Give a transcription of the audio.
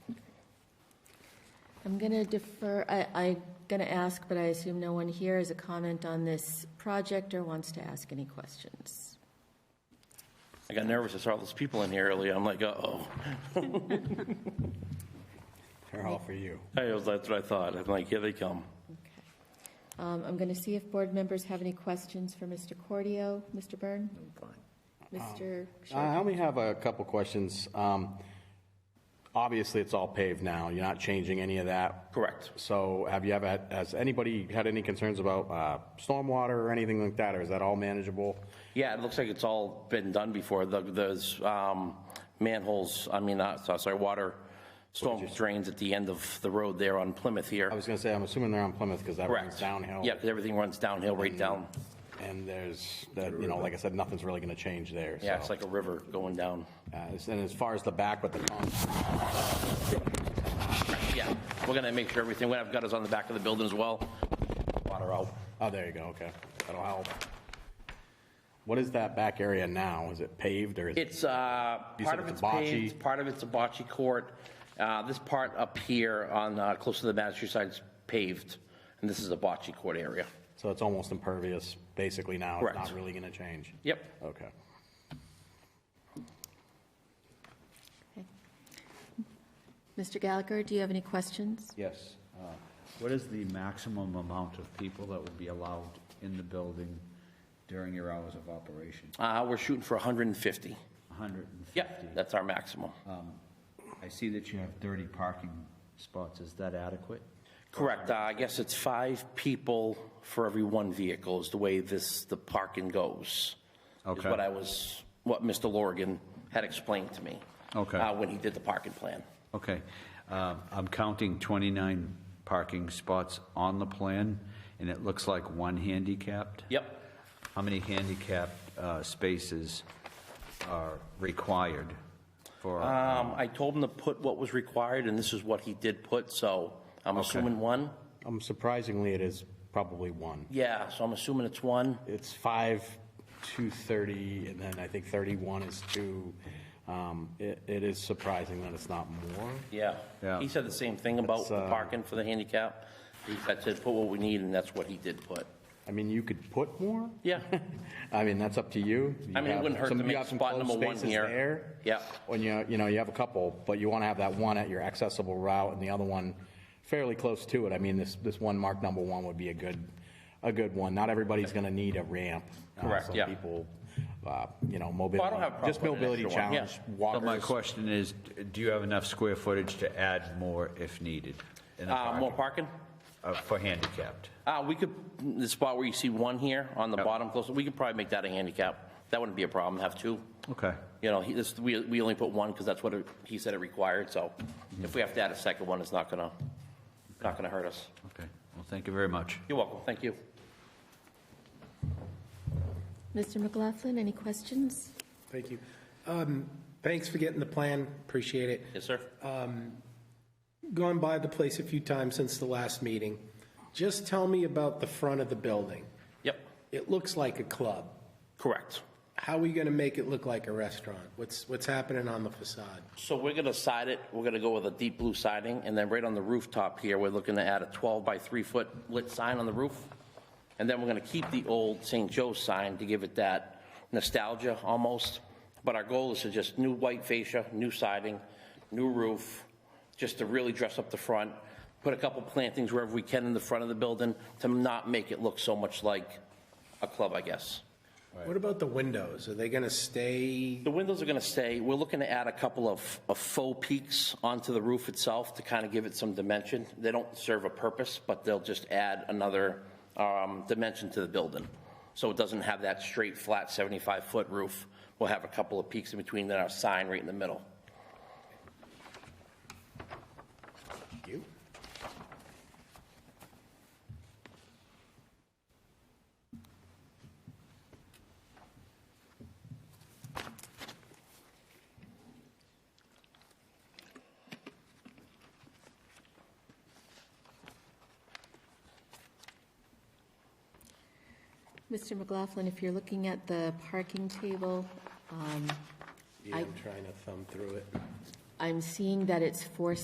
I'm going to defer, I, I'm going to ask, but I assume no one here has a comment on this project or wants to ask any questions. I got nervous. I saw all those people in here earlier. I'm like, uh-oh. They're all for you. I was, that's what I thought. I'm like, here they come. Okay. Um, I'm going to see if board members have any questions for Mr. Cordio, Mr. Byrne? Mr. Uh, I Sharkey? only have a couple questions. Um, Obviously, it's all paved now. You're not changing any of that. Correct. So have you ever, had- has anybody had any concerns about uh, stormwater or anything like that, or is that all manageable? Yeah, it looks like it's all been done before. The- Those um, manholes, I mean, uh, so- sorry, water storm drains at the end of the road there on Plymouth I here. was going to say, I'm assuming they're on Plymouth because that runs Correct. downhill. Mm-hmm. Yep, everything runs downhill right down. And there's, that you know, like I said, nothing's really going to change there. Yeah, so. it's like a river going down. Uh, And as far as the back with the pump, Yeah, we're going to make sure everything, what I've got is on the back of the building as well. Water out. oh, there you go, okay. That'll help. What is that back area now? Is it paved or is it? It's, uh, You part said of it's it's a bocce. paved, part of it's a bocce court. Uh, This part up here on, uh, close to the Madison side's paved, and this is a bocce court area. So it's almost impervious, basically now, it's not Correct. really gonna change? Yep. Okay. Mr. Gallagher, do you have any questions? Yes. uh, What is the maximum amount of people that would be allowed in the building during your hours of operation? Uh, We're shooting for 150. 150? Yep, that's our maximum. Uh, I see that you have 30 parking spots. Is that adequate? Correct. Uh, I guess it's five people for every one vehicle is the way this, the parking goes. Is Okay. what I was, what Mr. Lorgan had explained to me. Okay. uh, When he did the parking plan. Okay. Uh, I'm counting 29 parking spots on the plan, and it looks like one handicapped? Yep. How many handicapped uh, spaces are required for? Um, I told him to put what was required, and this is what he did put, so I'm assuming one? Um, surprisingly, it is probably one. Yeah, so I'm assuming it's one. It's five, two thirty, and then I think thirty-one is two. Um, it, it is surprising that it's not more. Yeah. Yeah. He said the same thing about That's, the uh, parking for the handicap. He said, "Said, put what we need, and that's what he did put. I mean, you could put more? Yeah, I mean, that's up to you. You I mean, it have wouldn't hurt some- to you make have some spot closed number one spaces here. there. Yeah. When you, you know, you have a couple, but you wanna have that one at your accessible route and the other one fairly close to it. I mean, this, this one marked number one would be a good, a good one. Not everybody's gonna need a ramp. Uh, Correct, yeah. Some people, uh, you know, mobility. Well, I don't have a problem Just with an mobility extra one, yeah. challenge, But my walkers. question is, do you have enough square footage to add more if needed? in the Uh, more parking? parking? Uh, For handicapped? Uh, we could, the spot where you see one here on the Yep. bottom close, we could probably make that a handicap. That wouldn't be a problem, have two. Okay, You know, he, this, we, we only put one because that's what it- he said it required, so if we have to add a second one, it's not gonna, not gonna hurt us. okay. Well, thank you very much. You're welcome, thank you. Mr. McLaughlin, any questions? Thank you. Um, Thanks for getting the plan, appreciate it. Yes, sir? Gone by the place a few times since the last meeting. Just tell me about the front of the building. Yep, It looks like a club. correct. How are we going to make it look like a restaurant? What's, what's happening on the facade? So we're gonna side it, we're gonna go with a deep blue siding, and then right on the rooftop here, we're looking to add a 12 by 3 foot lit sign on the roof. And then we're gonna keep the old St. Joe's sign to give it that nostalgia almost. But our goal is to just new white fascia, new siding, new roof, just to really dress up the front, put a couple plantings wherever we can in the front of the building to not make it look so much like a club, I guess. What about the windows? Are they going to stay? The windows are going to stay. We're looking to add a couple of of faux peaks onto the roof itself to kind of give it some dimension. They don't serve a purpose, but they'll just add another um, dimension to the building. So it doesn't have that straight, flat 75-foot roof. We'll have a couple of peaks in between, then our sign right in the middle. You? Mr. McLaughlin, if you're looking at the parking table, um, Yeah, I'm trying to thumb through it. I'm seeing that it's four